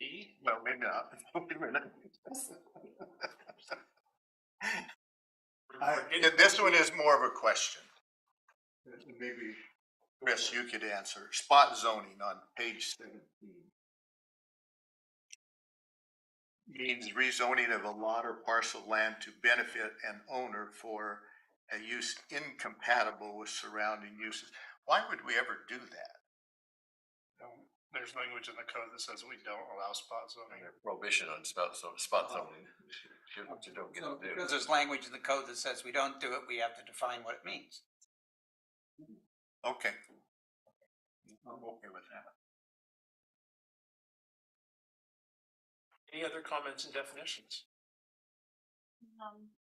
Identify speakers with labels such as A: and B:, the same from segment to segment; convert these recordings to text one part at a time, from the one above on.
A: E? Well, maybe not. Wait a minute.
B: I-
A: It-
C: Yeah, This one is more of a question.
B: Maybe.
C: Chris, you could answer. Spot zoning on page seventeen. Means rezoning of a lot or parcel of land to benefit an owner for a use incompatible with surrounding uses. Why would we ever do that?
A: no, There's language in the code that says we don't allow spot zoning.
D: prohibition on spot, so spot
C: Oh.
D: zoning. You don't- you don't get
E: So
D: to do.
E: because there's language in the code that says we don't do it, we have to define what it means.
C: Okay. I'm okay with that.
A: Any other comments and definitions?
F: Um,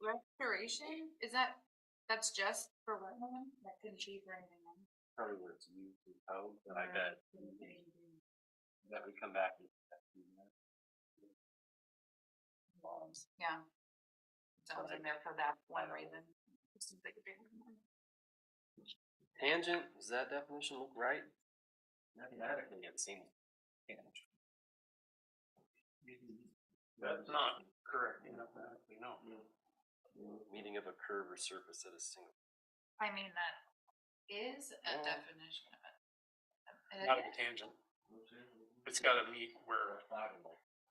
F: restoration, is that, that's just for wetland, that couldn't be for anything else?
G: probably where it's used in code, but I
F: Or
G: bet
F: couldn't be anything
G: that would come back. and-
F: involved. Yeah. Sounds in there for that one reason. It seems like a big one.
G: Tangent, does that definition look right? Mathematically, it seems. tangent.
A: That's not correct. you know, that we know.
G: Meaning of a curve or surface at a single.
F: I mean, that is a
G: Yeah.
F: definition of it. And
A: Not a
F: it-
A: tangent. It's gotta meet where,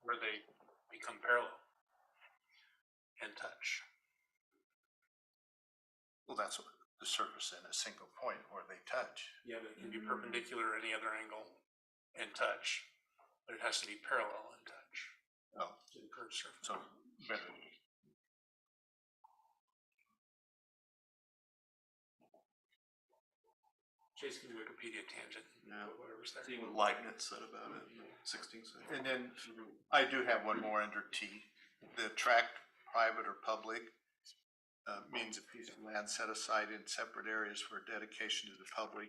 A: where they become parallel and touch.
C: Well, that's what the surface in a single point where they touch.
A: Yeah, but it can be perpendicular at any other angle and touch, but it has to be parallel and touch
C: Oh,
A: to the curved surface.
C: so better.
A: Chase can Wikipedia tangent, whatever's there.
B: what Leibniz said about it in the sixteenth
C: And then I do have one more under T. The tract, private or public, uh, means a piece of land set aside in separate areas for dedication to the public,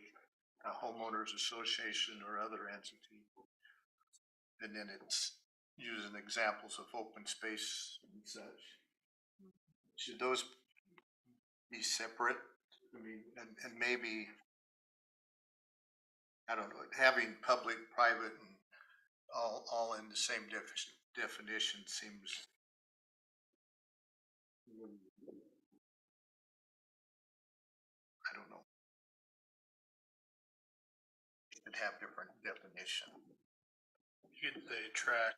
C: a homeowners association or other entity. And then it's using examples of open space and such. Should those be separate? I mean, and, and maybe, I don't know, having public, private and all, all in the same defi- definition seems. I don't know. Should have different definition.
A: Should they track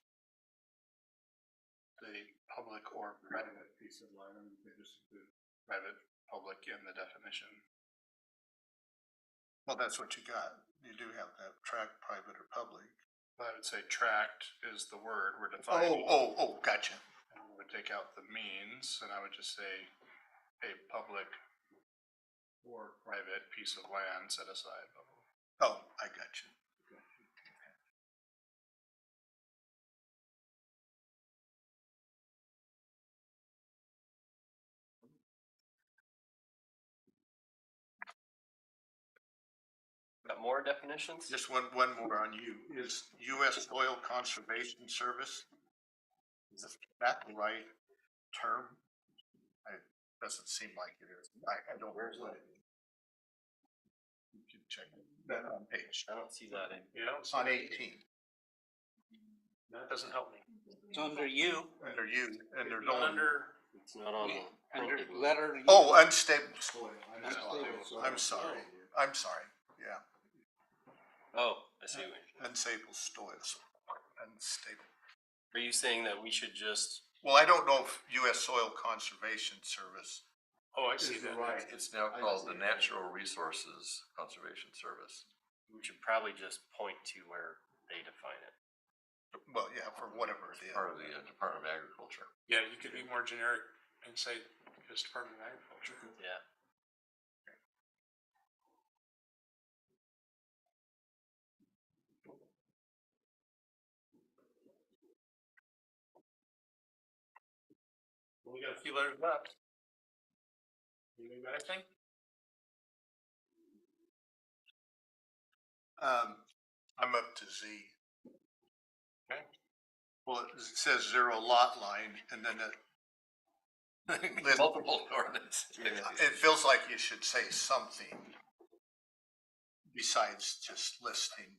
A: the public or private piece of land, and they just include private, public in the definition?
C: Well, that's what you got. You do have that track, private or public.
A: I would say tract is the word we're
C: Oh,
A: defining.
C: oh, oh, gotcha.
A: And we would take out the means, and I would just say a public or private piece of land set aside. blah, blah, blah.
C: Oh, I gotcha.
G: Got more definitions?
C: Just one, one more on you. Is US Soil Conservation Service? Is that the right term? It doesn't seem like it is. I, I don't.
G: Where's that?
C: You can check that on page,
G: I don't see that in.
A: You know, so
C: on eighteen,
A: that doesn't help me.
E: It's under you,
C: under you, and there's
A: Not
C: only,
A: Under,
G: It's not on the.
E: under
G: printed one.
E: letter. U.
C: oh, unstable soil. I
E: That's
C: know.
E: stable soil.
C: I'm sorry, I'm sorry, yeah,
G: Oh, I see. what you-
C: unstable soils, unstable.
G: Are you saying that we should just,
C: Well, I don't know if US Soil Conservation Service,
A: oh, I see
B: Is the
A: that.
B: right-
D: It's now
B: I
D: called the
B: see.
D: Natural Resources Conservation Service.
G: we should probably just point to where they define it?
C: well, yeah, for whatever it is.
D: Part of the uh, Department of Agriculture.
A: Yeah, you could be more generic and say just Department of Agriculture.
G: Yeah.
A: We got a few letters left. You got anything?
C: Um, I'm up to Z.
A: Okay.
C: Well, it says zero lot line and then it. Listen,
D: Multiple ordinance.
C: It feels like you should say something besides just listing